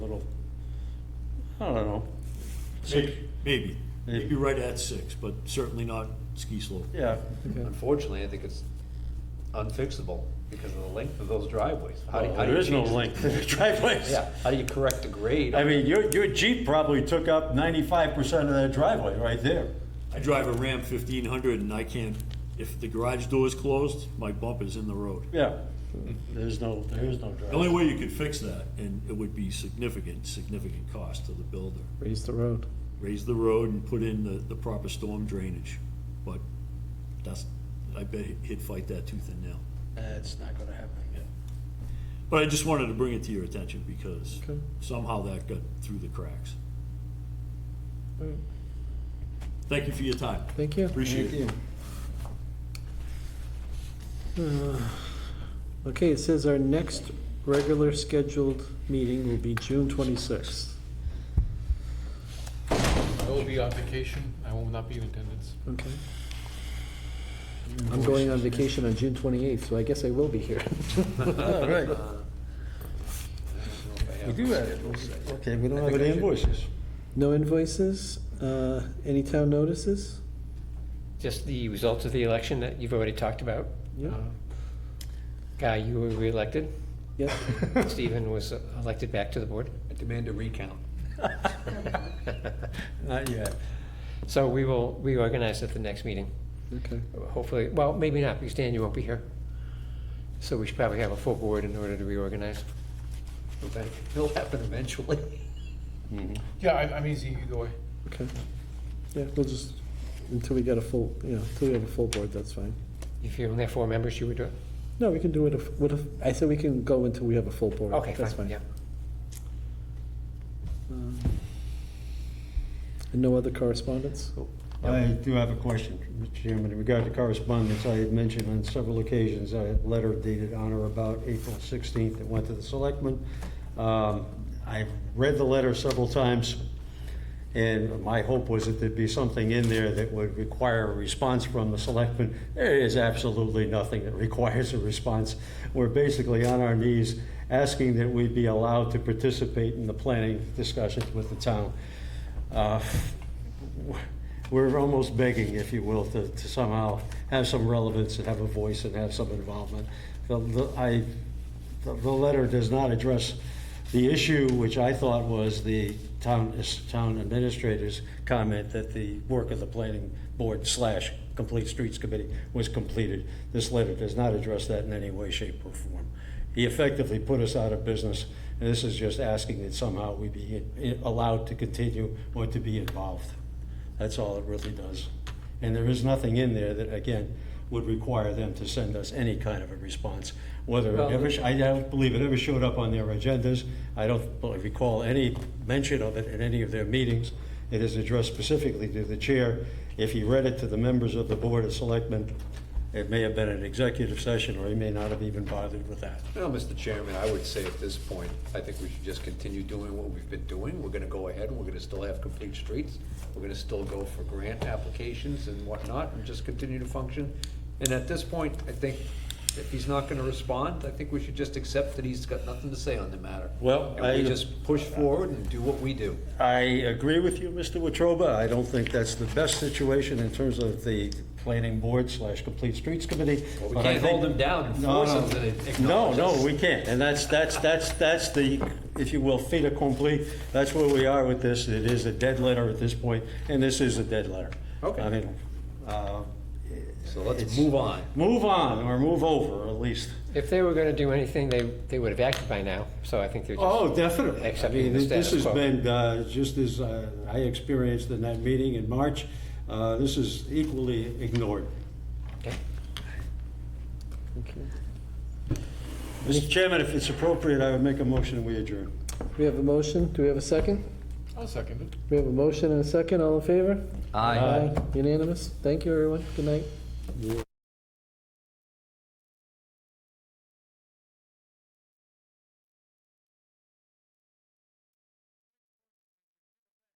I don't know. Six, Maybe, maybe, maybe right at six, but certainly not ski slope. yeah, Unfortunately, I think it's unfixable because of the length of those driveways. How do- Well, how do there you is no change- length to the driveways. Yeah, how do you correct the grade? I mean, your, your Jeep probably took up ninety-five percent of that driveway right there. I drive a Ram fifteen hundred and I can't, if the garage door is closed, my bump is in the road. Yeah, there's no, there is no The only driveway. way you could fix that, and it would be significant, significant cost to the builder, raise the road. raise the road and put in the, the proper storm drainage. But that's, I bet he'd fight that tooth and nail. That's not gonna happen. But I just wanted to bring it to your attention because Okay. somehow that got through the cracks. All right. Thank you for your time. Thank you. Appreciate it. Uh, Okay, it says our next regular scheduled meeting will be June twenty-sixth. I will be on vacation, I will not be in attendance. Okay. I'm going on vacation on June twenty-eighth, so I guess I will be here. All right, we do have, okay, we don't have any invoices. No invoices, uh, any town notices? Just the results of the election that you've already talked about. Uh, Yeah, Uh-huh. Guy, you were reelected. yeah, Stephen was elected back to the board. I demand a recount. Not yet. So we will reorganize at the next meeting, okay. hopefully. Well, maybe not, because Dan, you won't be here. So we should probably have a full board in order to reorganize. Okay, It'll happen eventually. Yeah, I'm, I'm easy either way. Okay. Yeah, we'll just, until we get a full, you know, until we have a full board, that's fine. If you only have four members, you would do it? No, we can do it if, what if, I said we can go until we have a full board. Okay, That's fine, yeah. Um, And no other correspondence? I do have a question, Mr. Chairman, in regard to correspondence, I had mentioned on several occasions, I had a letter dated on or about April 16th that went to the selectmen. Um, I read the letter several times, and my hope was that there'd be something in there that would require a response from the selectmen. There is absolutely nothing that requires a response. We're basically on our knees asking that we be allowed to participate in the planning discussions with the town. Uh, we're almost begging, if you will, to to somehow have some relevance and have a voice and have some involvement. The, the, I, the the letter does not address the issue, which I thought was the town, town administrator's comment that the work of the planning board slash complete streets committee was completed. This letter does not address that in any way, shape, or form. He effectively put us out of business, and this is just asking that somehow we be i- allowed to continue or to be involved. That's all it really does. And there is nothing in there that, again, would require them to send us any kind of a response. Whether it ever, I don't believe it ever showed up on their agendas. I don't recall any mention of it in any of their meetings. It is addressed specifically to the chair. If he read it to the members of the Board of Selectmen, it may have been an executive session, or he may not have even bothered with that. Well, Mr. Chairman, I would say at this point, I think we should just continue doing what we've been doing. We're gonna go ahead, and we're gonna still have complete streets. We're gonna still go for grant applications and whatnot, and just continue to function. And at this point, I think if he's not gonna respond, I think we should just accept that he's got nothing to say on the matter. Well, And I- we just push forward and do what we do. I agree with you, Mr. Wetruba. I don't think that's the best situation in terms of the planning board slash complete streets committee. Well, we but I can't think- hold them down and No, force no. them to acknowledge No, no, us. we can't. And that's, that's, that's, that's the, if you will, fait accompli. That's where we are with this. It is a dead letter at this point, and this is a dead letter. Okay. I mean, uh, So let's It's- move on. move on or move over, at least. If they were gonna do anything, they, they would have acted by now, so I think they're just. Oh, definitely. I accepting mean, the this this has status quo. been, uh, just as uh, I experienced in that meeting in March, uh, this is equally ignored. Oh. Okay. Okay. Mr. Chairman, if it's appropriate, I would make a motion and we adjourn. We have a motion, do we have a second? I'll second it. We have a motion and a second, all in favor? Unanimous, thank you, everyone, good night.